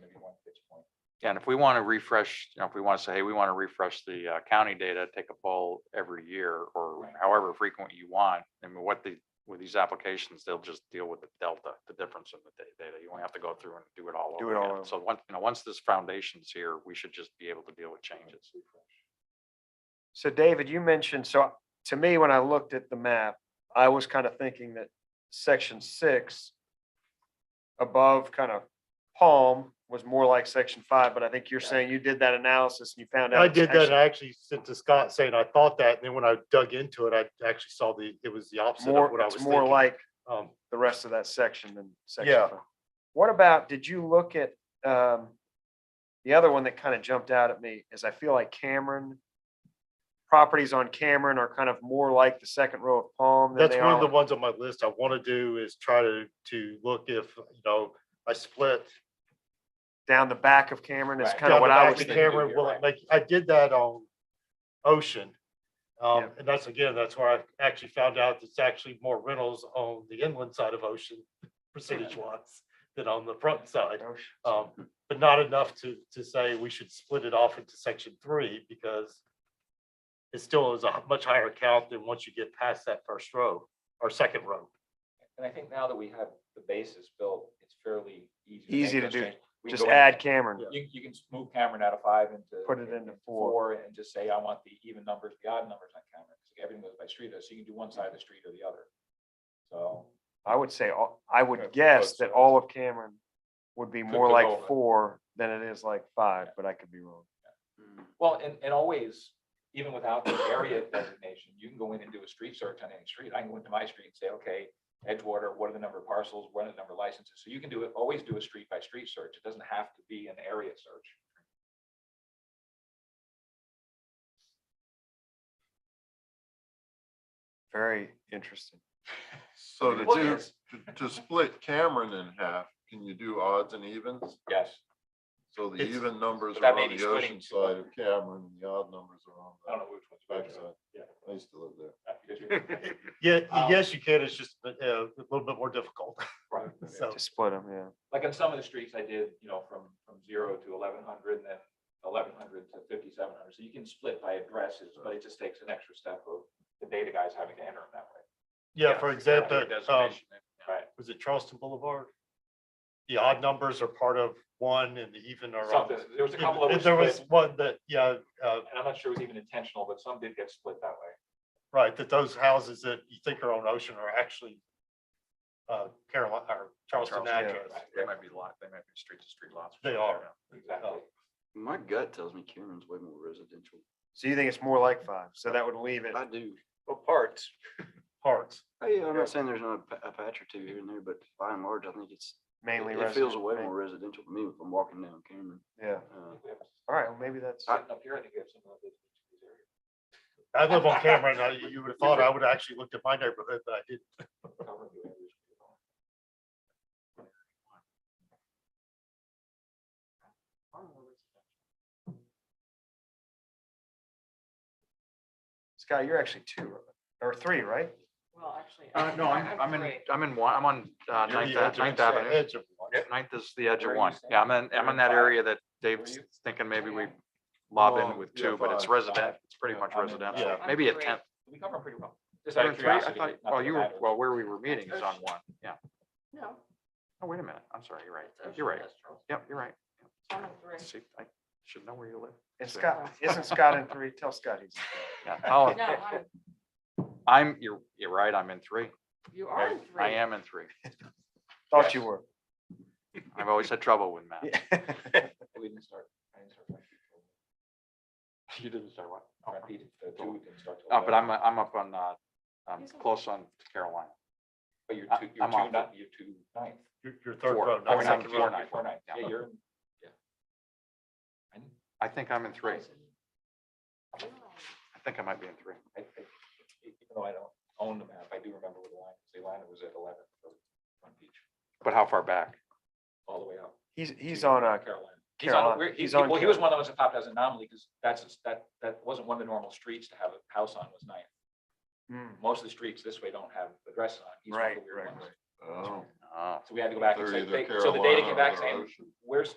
this point. Yeah, And if we want to refresh, you know, if we want to say, hey, we want to refresh the uh, county data, take a poll every year or Right. however frequent you want. And what the, with these applications, they'll just deal with the delta, the difference in the da- data. You won't have to go through and do it all Do over it all again. over. So once, you know, once this foundation's here, we should just be able to deal with changes. So David, you mentioned, so to me, when I looked at the map, I was kind of thinking that section six above kind of Palm was more like section five, but I think you're saying you did that analysis and you found out. I it's did that, and actually I actually sent to Scott saying I thought that, and then when I dug into it, I actually saw the, it was the opposite of what More, I was it's more thinking. like Um, the rest of that section than section Yeah. five. What about, did you look at, um, the other one that kind of jumped out at me is I feel like Cameron, properties on Cameron are kind of more like the second row of Palm than That's they one of the are. ones on my list I want to do is try to, to look if, you know, I split Down the back of Cameron is Right. kind of what I was the thinking. camera, You're well, right. like, I did that on Ocean. Um, Yeah. and that's, again, that's where I actually found out it's actually more rentals on the inland side of Ocean percentage wise than on the front side. thinking. Oh, Um, but not enough to, to say we should split it off into section three because it still is a much higher count than once you get past that first row or second row. And I think now that we have the basis built, it's fairly easy. make Easy to those do. changes. We can Just go in- add Cameron. You, you can move Cameron out of five into. Put it into four. And just say, I want the even numbers, the odd numbers on Cameron, because everything goes by street, so you can do one side of the street or the other. So. I would say, all- I Yeah, would guess both that sides. all of Cameron would be more go like over. four than it is like five, but I could be wrong. Well, and, and always, even without the area designation, you can go in and do a street search on any street. I can go into my street and say, okay, Edgewater, what are the number of parcels, what are the number of licenses? So you can do it, always do a street by street search. It doesn't have to be an area search. Very interesting. So to Well, do, yes. to- to split Cameron in half, can you do odds and evens? Yes, So the It's- even numbers But that are may on be the splitting ocean two. side of Cameron, and the odd numbers are on I don't know the which one's back better. side. Yeah. I used to live there. Yeah, Um, yes, you can. It's just uh, a little bit more difficult. Right. So Oh. To split them, yeah. Like on some of the streets I did, you know, from, from zero to eleven hundred and then eleven hundred to fifty-seven hundred. So you can split by addresses, but it just takes an extra step of the data guys having to enter them that way. yeah, for example, Area um, designation, yeah. Right. was it Charleston Boulevard? The odd numbers are part of one and the even are. on- Something, there was a couple of. them There was split. one that, yeah, uh, and I'm not sure it was even intentional, but some did get split that way. right, that those houses that you think are on Ocean are actually uh, Carolina or Charleston Charleston, address. right. They might be lot, they might be street to street lots. They are. Oh. Exactly. My gut tells me Cameron's way more residential. So you think it's more like five? So that would leave it. I do. But parts. Parts. Hey, I'm not saying there's not a pa- a patch or two here and there, but by and large, I think it's, it mainly it feels residential. way more residential to me if I'm walking down Cameron. Yeah, Uh, We have all right, well, maybe that's, Sitting up here, I think we have some of those. I live on Cameron. I- You would have thought I would have actually looked at my neighborhood, but I didn't. covered the areas. Scott, you're actually two right? or three, right? Well, actually. Uh, no, I'm, I'm in, great. I'm in one, I'm on uh, You're Ninth the edge Ave- of- Ninth Avenue. edge of one. Ninth is the edge of Where are you one. staying? Yeah, I'm in, I'm You're in in that five? area that Dave's you? thinking maybe we Yeah. lob Well, in with yeah, two, but it's five, resident, five. it's pretty much I'm in- residential. yeah. Maybe a I'm in tenth. We cover them pretty well. Just out You're of in three? I curiosity. thought, not well, that it you were, matters. well, where we were meeting is on Ocean. one. Yeah. No. Oh, wait a minute. I'm sorry. You're right. that's You're right. industrial. Yep, you're right. I'm in three. See, I should know where you live. And So- Scott, isn't Scott in three? Tell Scott he's. Yeah. Oh, No, I'm- I'm, you're, you're right. I'm in three. you are in three. I am in three. Thought you were. I've always had trouble with math. Oh, We didn't start. I didn't start. You didn't start what? I repeated the two didn't start till Uh, but 11. I'm, I'm up on, uh, I'm He's on- close on Carolina. But you're I- two, you're I'm off. two, not, you're two ninth. Your, your third Four. row. Oh, not and I'm second four row. You're- ninth. Four ninth. Yeah. Yeah, you're in, yeah. I didn't- I think I'm in three. Really? I think I might be in three. I, I, even though I don't own the map, I do remember where the line, is. the line was at eleven, so Front Beach, But how far back? all the way up. He's, he's to on uh, a, Carolina. He's on, Carolina. we're- he, He's on well, he was one that was a top as an anomaly, because that's, a- that, that wasn't one of the normal streets to have a house on was ninth. Mm, Most of the streets this way don't have addresses on. He's one of the Right, weird right, ones. Oh. Oh, So we had to go back and They're say, either they- so the data Carolina came back or saying, Ocean. where's,